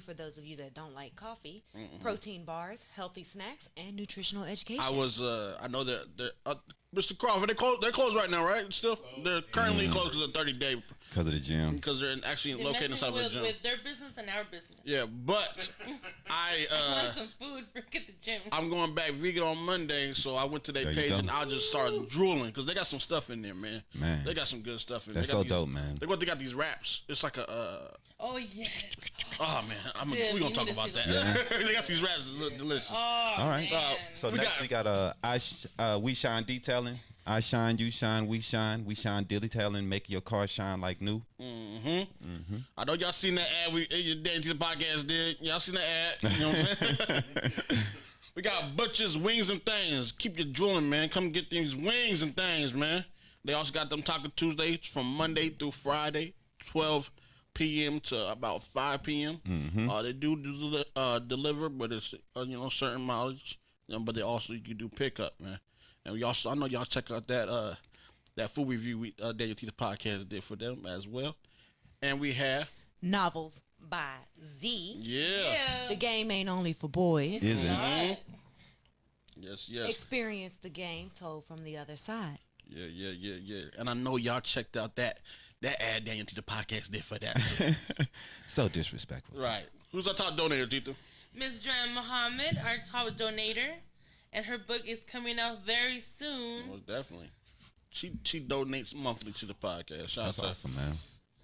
for those of you that don't like coffee, protein bars, healthy snacks, and nutritional education. I was. Uh, I know that they're, uh, Mr. Crawford. They closed. They're closed right now, right? Still, they're currently closed to the thirty day because of the gym. because they're in, actually Mm. They're located inside messing of a with, gym. with their business and our business. yeah, but I. Uh, Want some food for at the gym. I'm going back vegan on Monday, so I went to their There you page go. and I just started drooling because they got some stuff in there, man. Man. they got some good stuff in there. That's They got so these- dope, man. They got they got these wraps. It's like a. Uh, Oh yes. oh man, I'm Dude, we you gonna need talk to about see that. they got these wraps. that look delicious. Oh, All right. Man. So We next got- we got uh, I sh- uh, we shine detailing. I shine, you shine, we shine, we shine detailing. Make your car shine like new. I know y'all seen that ad we your Dainty the podcast did. Y'all seen that ad. You know what I'm saying? we got butchers, wings and things. Keep your drooling, man. Come get these wings and things, man. They also got them Taco Tuesdays from Monday through Friday, 12 p.m. to about 5 p.m. Uh, they do, do uh, deliver, but it's uh, you know certain mileage. You know, but they also you can do pickup, man. And we also I know y'all check out that uh that food review we uh, Daniel T the podcast did for them as well. And we have Novels by Z. yeah. The game ain't only for boys. Is it? Alright. Yes, yes. Experience the game told from the other side. yeah, yeah, yeah, yeah. And I know y'all checked out that that ad Daniel Tito podcast did for that. too. So disrespectful. right. Who's our top donator, Tito? Ms. Dram Muhammad, our top donator, and her book is coming out very soon. Most definitely. She she donates monthly to the podcast. Shout out That's to her. awesome, man.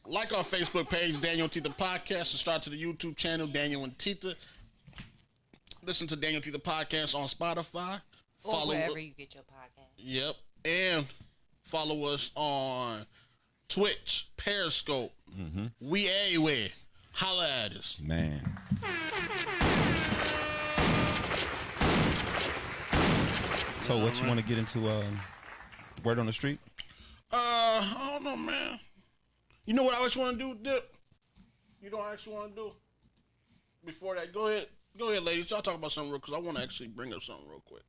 Like our Facebook page, Daniel Tita Podcast. Subscribe to the YouTube channel, Daniel and Tita. Listen to Daniel Tita Podcast on Spotify. Or wherever us- you get your podcast. Yep. And follow us on Twitch, Periscope. Mm-hmm. We everywhere. Holla at us. Man. So what you want to get into? Uh, word on the street. Uh, I don't know, man. You know what I always want to do, Dip? You know what I actually want to do? Before that, go ahead. Go ahead, ladies. Y'all talk about something real because I want to actually bring up something real quick.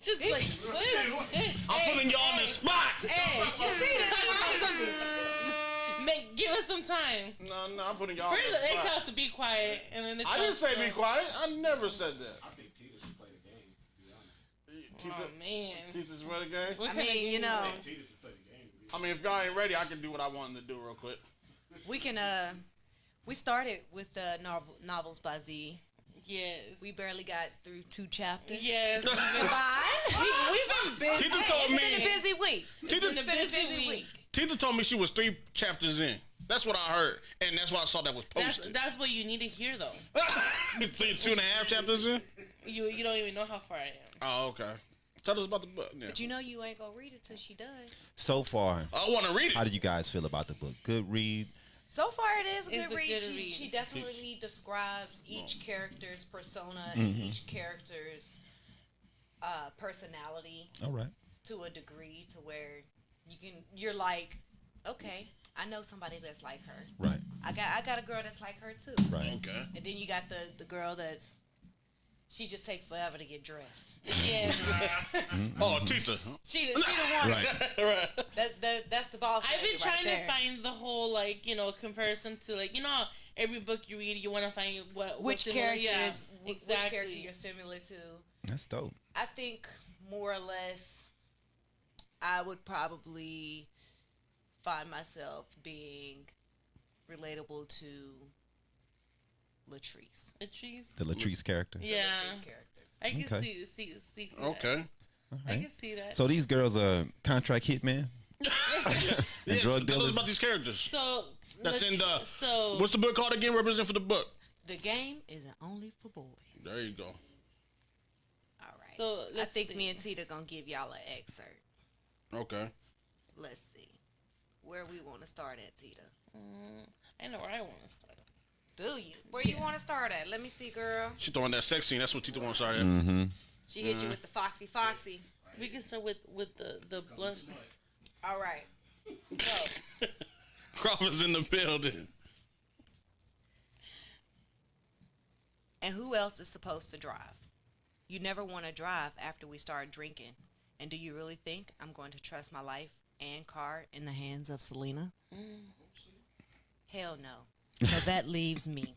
Just like what? I'm putting y'all on the spot. Hey, you see Make give us some time. No, no, I'm putting y'all on First, it the tells spot. us to be quiet, and then it Oh, I didn't tells say us be to- quiet. I never said that. I think Tita should play the game. To be honest, Tita, Oh man. Tita's ready game. What I kind of mean, you game know, is Tita should play the game. to be I mean, if y'all ain't ready, I can do what I wanted to do real quick. we can uh we started with the novel, novels by Z. it? Yes. We barely got through two chapters. yes. We've been, Fine. we've been busy. Tita told It's been a me. busy week. Tita, It's been a been a busy, busy week. week. Tita told me she was three chapters in. That's what I heard, and that's what I saw that Oh, was That's posted. that's what you need to hear though. so you're two and a half chapters in. You you don't even know how far I am. Oh, okay. Tell us about the book. Yeah. But you know you ain't gonna read it till she does. So far, I want to read how it. do you guys feel about the book? Good read. So far, it is a It's good a read. good she, read. she definitely describes each character's persona and Mm-hmm. each character's uh, personality All right. to a degree to where you can you're like, okay, I know somebody that's like her. Right. I got I got a girl that's like her too. Right. Okay. And then you got the the girl that's she just takes forever to get dressed. Yes. Oh, Tita. She the, she the one Right. right. that, that that's the boss. I've been lady right trying there. to find the whole like you know comparison to like you know how every book you read you want to find which what what's in- character yeah, is wh- exactly which character you're similar to. That's dope. I think more or less, I would probably find myself being relatable to Latrice. Latrice. The Latrice character. the Yeah, Latrice character. I can Okay. see see see. see that. Okay. All I right. can see that. So, So these girls are contract hitmen and Yeah, drug tell us dealers. about these characters. That's let's- in the- So What's the book called again? Represent for the book. The game isn't only for boys. There you go. All right. so I let's think see. me and Tita gonna give y'all an excerpt. Okay. Let's see where we want to start at, Tita. I know where I want to start. Do you? Where you want to start at? Let me see, girl. She throwing that sex scene. That's what Tita wants. Sorry. Mm-hmm. She hit you with the foxy, foxy. We can start with with the the blunt. All right. So. Crawford's in the building. And who else is supposed to drive? You never want to drive after we start drinking. And do you really think I'm going to trust my life and car in the hands of Selena? Hell no. So that leaves me.